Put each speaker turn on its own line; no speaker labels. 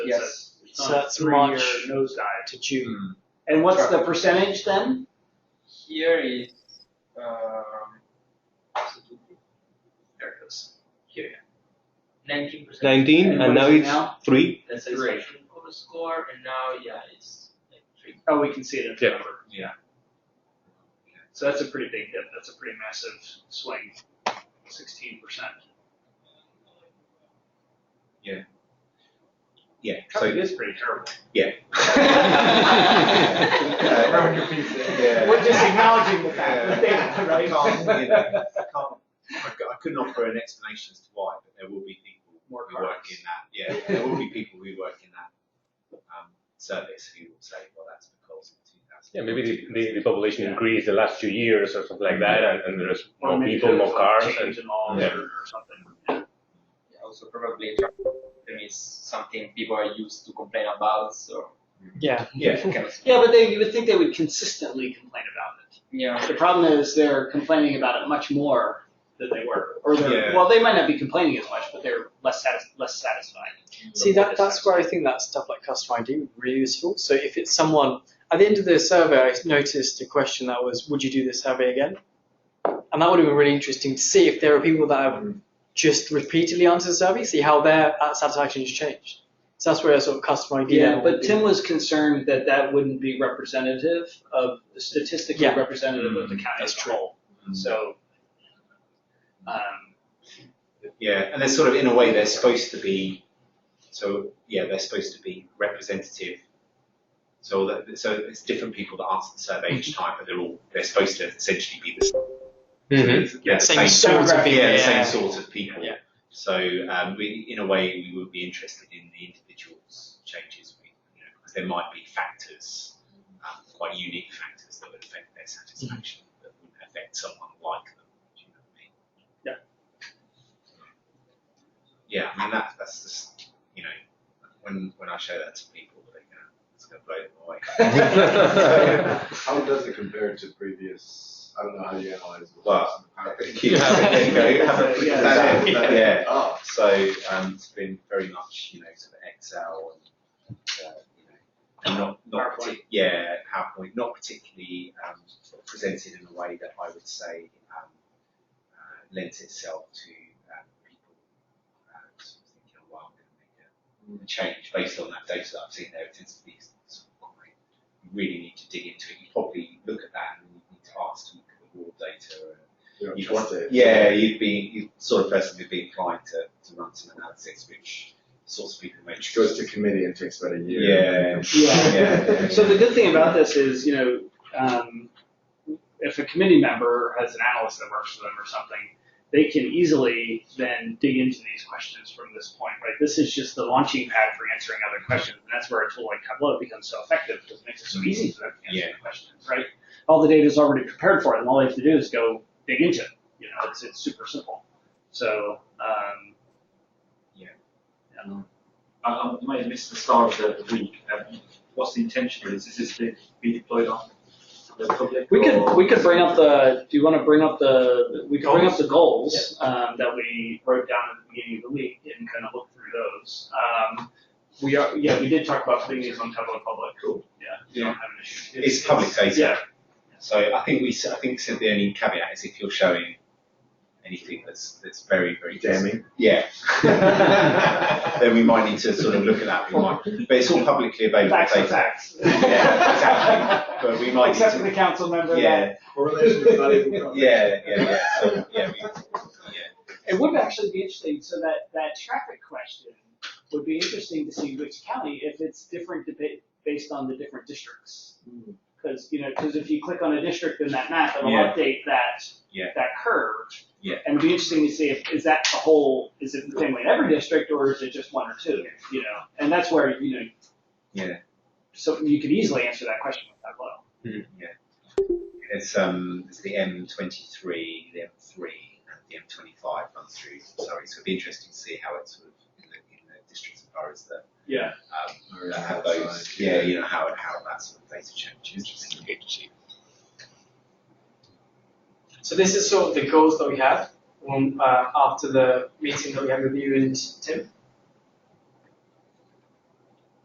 that
Yes.
says
So
on a
that's
three-year
March.
nosedive to June.
And what's
Sure.
the percentage then?
Here is, um,
There it goes.
nineteen percent.
19
what
and now
is it
it's
now?
3
That's
Three.
expression for the score, and now, yeah, it's like three.
Oh, we can see it in the
Yeah.
number.
Yeah.
So that's a pretty big dip. That's a pretty massive swing. Sixteen percent.
yeah
It is pretty terrible.
so
Yeah.
We're just acknowledging the fact,
Yeah.
right?
I can't, you know, I can't, I c- I could not offer an explanation as to why, but there will be people
More
who work
cards.
in that, yeah, there will be people who work in that, um, service who will say, well, that's because of two thousand.
Yeah, maybe the, the, the population increased the last two years or something like that, and, and there's
Or
more
maybe
people,
there's
more
a
cars, and
Change in laws
yeah.
or, or something.
Yeah, Also probably there is something people are used to complain about, so.
Yeah.
Yeah.
kind of-
Yeah, but they, you would think they would consistently complain about
Yeah.
it. The problem is they're complaining about it much more
That they were.
or they're,
Yeah.
well, they might not be complaining as much, but they're less satis- less satisfied.
See,
More
that, that's where I think that stuff like customer ID would be really useful. So if it's someone, at the end of the survey, I noticed a question that was, would you do this survey again? And that would have been really interesting to see if there are people that have just repeatedly answered the survey, see how their uh, satisfaction has changed. So that's where a sort of customer ID
Yeah,
level would
but
be.
Tim was concerned that that wouldn't be representative of, statistically
Yeah.
representative of the county as
That's
a whole. So, um,
Yeah, and they're sort of, in a way, they're supposed to be, so, yeah, they're supposed to be representative. So that, so it's different people that answer the survey each time, but they're all, they're supposed to essentially be the same.
Mm-hmm.
Yeah, the
same,
same
sort of
demographic,
people.
yeah, the
yeah.
same sort of people.
Yeah.
So um, we, in a way, we would be interested in the individuals' changes, we, you know, because there might be factors, um, quite unique factors that would affect their satisfaction
Mm-hmm.
that would not affect someone like them. Do you know what I mean?
Yeah.
Yeah, I mean that, that's just you know when when I show that to people, they're gonna, it's gonna blow them away.
How does it compare to previous? I don't know how you analyze. it.
Well, I think you have it, there you go, have a-
Yeah,
that-
exactly.
that- yeah. So um, it's been very much, you know, sort of Excel and, uh, you know, not, not
PowerPoint.
partic- yeah, PowerPoint, not particularly um, presented in a way that I would say um, uh, lent itself to um, people uh, sort of thinking, oh, wow, I'm going to make a, a change based on that data that I've seen there. It tends to be sort of quite, you really need to dig into it. You probably look at that and you need to ask to look at the raw data and
You don't
you'd
trust
want-
it.
yeah, you'd be you sort of person who'd be inclined to, to run some analysis, which sorts of people make
Which goes to committee and takes about a year.
Yeah.
yeah.
yeah.
So the good thing about this is, you know, um, if a committee member has an analyst that works for them or something, they can easily then dig into these questions from this point, right? This is just the launching pad for answering other questions, and that's where a tool like Tableau becomes so effective because it makes it so easy for them to answer
Yeah.
the questions, right? All the data is already prepared for it, and all they have to do is go dig into it. You know, it's it's super simple. So um,
I, I may have missed the start of the week. Um, what's the intention? Is, is this to be deployed on the public?
We could,
or-
we could bring up the, do you want to bring up the, we could bring up the goals um, that we wrote down at the beginning of the week and kind of look through those. Um, We are, yeah, we did talk about putting these on Tableau Public. Cool. Yeah, we don't have an issue.
It's public data.
Yeah,
So I think we s- I think so the only caveat is if you're showing anything that's that's very very
Damning.
Yeah. then we might need to sort of look at that. We might, but it's all publicly available
facts are
data.
facts.
Yeah, exactly. But we might
Except for
need
the council member that,
to. Yeah,
Correlation is not even.
yeah, yeah, yeah. So yeah, we,
it would actually be interesting, so that, that traffic question would be interesting to see which county, if it's different debate based on the different districts.
Hmm.
Because, you know, because if you click on a district in that map, it'll
Yeah.
update that,
Yeah.
that curve.
Yeah.
And it'd be interesting to see if, is that the whole, is it the same way in every district, or is it just one or two, you know? And that's where, you know.
Yeah.
So you could easily answer that question with that level.
It's um, it's the M23, the M3, and the M25 runs through Sorry, so it'd be interesting to see how it's sort of in the, in the districts and boroughs that
Yeah.
um,
Or
that have those.
outside,
Yeah, you know how how that sort of data changes.
So this is sort of the goals that we had um, uh, after the meeting that we had with you and Tim.